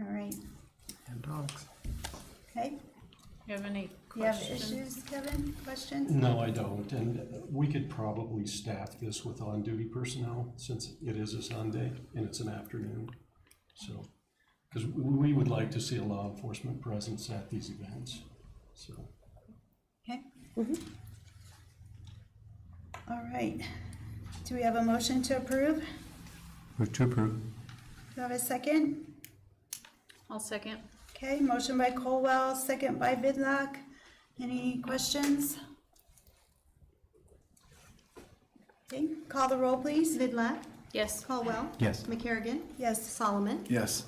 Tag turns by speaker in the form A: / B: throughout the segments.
A: All right,
B: and dogs.
A: okay.
C: You have any
A: Do you have
C: questions?
A: issues, Kevin? Questions?
D: No, I don't, and we could probably staff this with on-duty personnel, since it is a Sunday and it's an afternoon, so. Because we would like to see a law enforcement presence at these events, so.
A: Okay. All right. Do we have a motion to approve?
B: Move to approve.
A: Do we have a second?
C: I'll second.
A: Okay, motion by Colwell, second by Vidlac. Any questions? Okay, call the roll, please.
E: Vidlac,
C: Yes.
E: Caldwell.
B: Yes.
E: McCarrigan.
A: Yes,
E: Solomon.
F: Yes,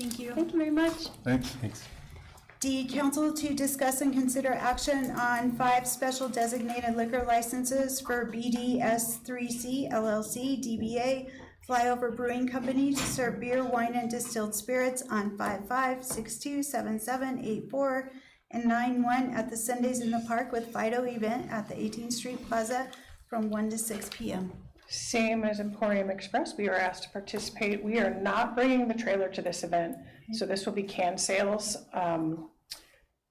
A: thank you.
E: Thank you very much.
F: thanks.
B: Thanks.
A: D, council to discuss and consider action on five special designated liquor licenses for BDS 3C LLC DBA Flyover Brewing Company to serve beer, wine, and distilled spirits on 55627784 and 91 at the Sundays in the Park with Fido event at the 18th Street Plaza from 1 to 6 p.m.
G: Same as Emporium Express, we were asked to participate. We are not bringing the trailer to this event, so this will be can sales. Um,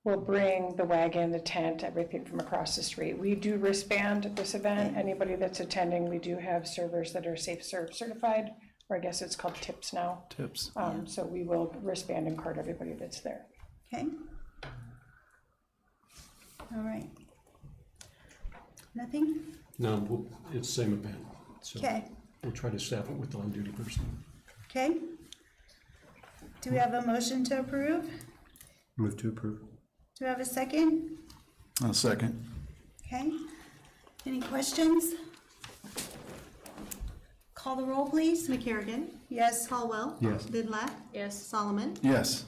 G: We'll bring the wagon, the tent, everything from across the street. We do wristband at this event. Anybody that's attending, we do have servers that are Safe Serve certified, or I guess it's called TIPS now.
F: Tips.
G: Um, So we will wristband and card everybody that's there.
A: Okay? All right. Nothing?
D: No, we'll- it's the same event, so.
A: Okay.
D: We'll try to staff it with on-duty personnel.
A: Okay. Do we have a motion to approve?
B: Move to approve.
A: Do we have a second?
F: A second.
A: Okay. Any questions? Call the roll, please.
E: McCarrigan.
A: Yes,
E: Caldwell.
B: Yes.
E: Vidlac.
C: Yes.
E: Solomon.
F: Yes,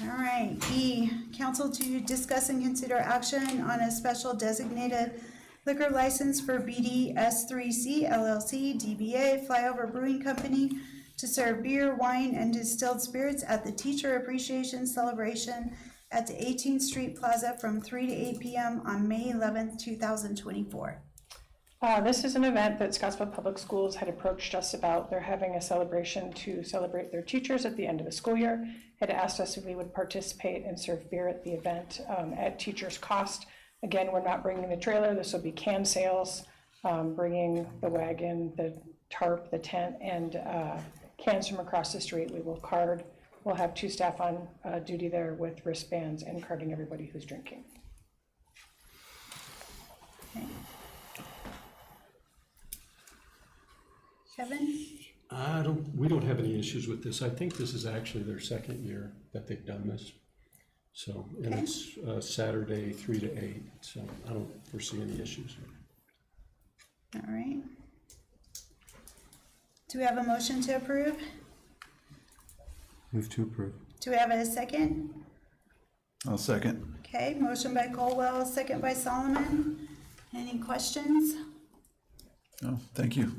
A: all right. E, council to discuss and consider action on a special designated liquor license for BDS 3C LLC DBA Flyover Brewing Company to serve beer, wine, and distilled spirits at the Teacher Appreciation Celebration at the 18th Street Plaza from 3 to 8 p.m. on May 11th, 2024.
G: Uh, this is an event that Scottsville Public Schools had approached us about. They're having a celebration to celebrate their teachers at the end of the school year. Had asked us if we would participate and serve beer at the event um, at teachers' cost. Again, we're not bringing the trailer. This will be can sales, um, bringing the wagon, the tarp, the tent, and uh, cans from across the street. We will card. We'll have two staff on uh, duty there with wristbands and carding everybody who's drinking.
A: Kevin?
D: I don't, we don't have any issues with this. I think this is actually their second year that they've done this. So, and it's uh, Saturday, three to eight, so I don't foresee any issues.
A: All right. Do we have a motion to approve?
B: Move to approve.
A: Do we have a second?
F: A second.
A: Okay, motion by Colwell, second by Solomon. Any questions?
F: Oh, thank you.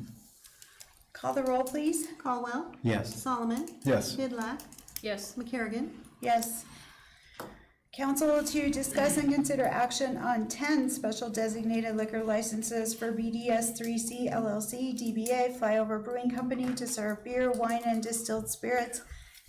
A: Call the roll, please.
E: Caldwell.
B: Yes.
E: Solomon.
F: Yes,
E: Vidlac.
C: Yes.
E: McCarrigan.
A: Yes. Council to discuss and consider action on ten special designated liquor licenses for BDS three C LLC DBA Flyover Brewing Company to serve beer, wine, and distilled spirits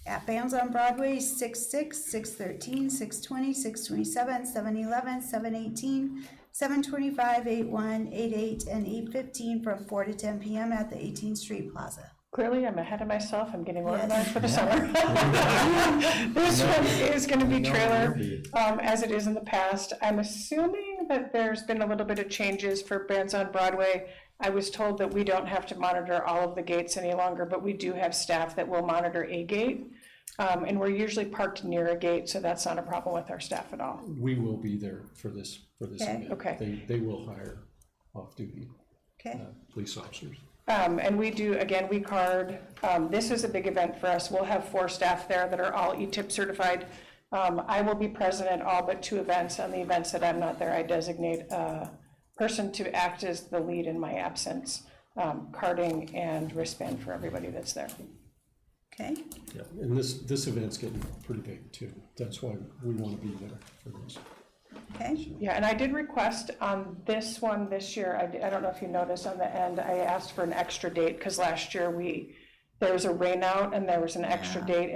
A: at Bams on Broadway, six six, six thirteen, six twenty, six twenty-seven, seven eleven, seven eighteen, seven twenty-five, eight one, eight eight, and eight fifteen from four to ten PM at the Eighteenth Street Plaza.
G: Clearly, I'm ahead of myself. I'm getting
A: Yes.
G: organized for the summer. This one is gonna be trailer, um, as it is in the past. I'm assuming that there's been a little bit of changes for bands on Broadway. I was told that we don't have to monitor all of the gates any longer, but we do have staff that will monitor a gate. Um, and we're usually parked near a gate, so that's not a problem with our staff at all.
D: We will be there for this, for this
A: Okay.
D: event.
G: Okay.
D: They, they will hire off-duty
A: Okay?
D: uh, police officers.
G: Um, and we do, again, we card, um, this is a big event for us. We'll have four staff there that are all E ETIP certified. Um, I will be present at all but two events. On the events that I'm not there, I designate a person to act as the lead in my absence, um, carding and wristband for everybody that's there.
A: Okay?
D: Yeah, and this, this event's getting pretty big too. That's why we want to be there for this.
A: Okay?
G: Yeah, and I did request on this one this year, I, I don't know if you noticed on the end, I asked for an extra date because last year we, there was a rainout and there was an extra date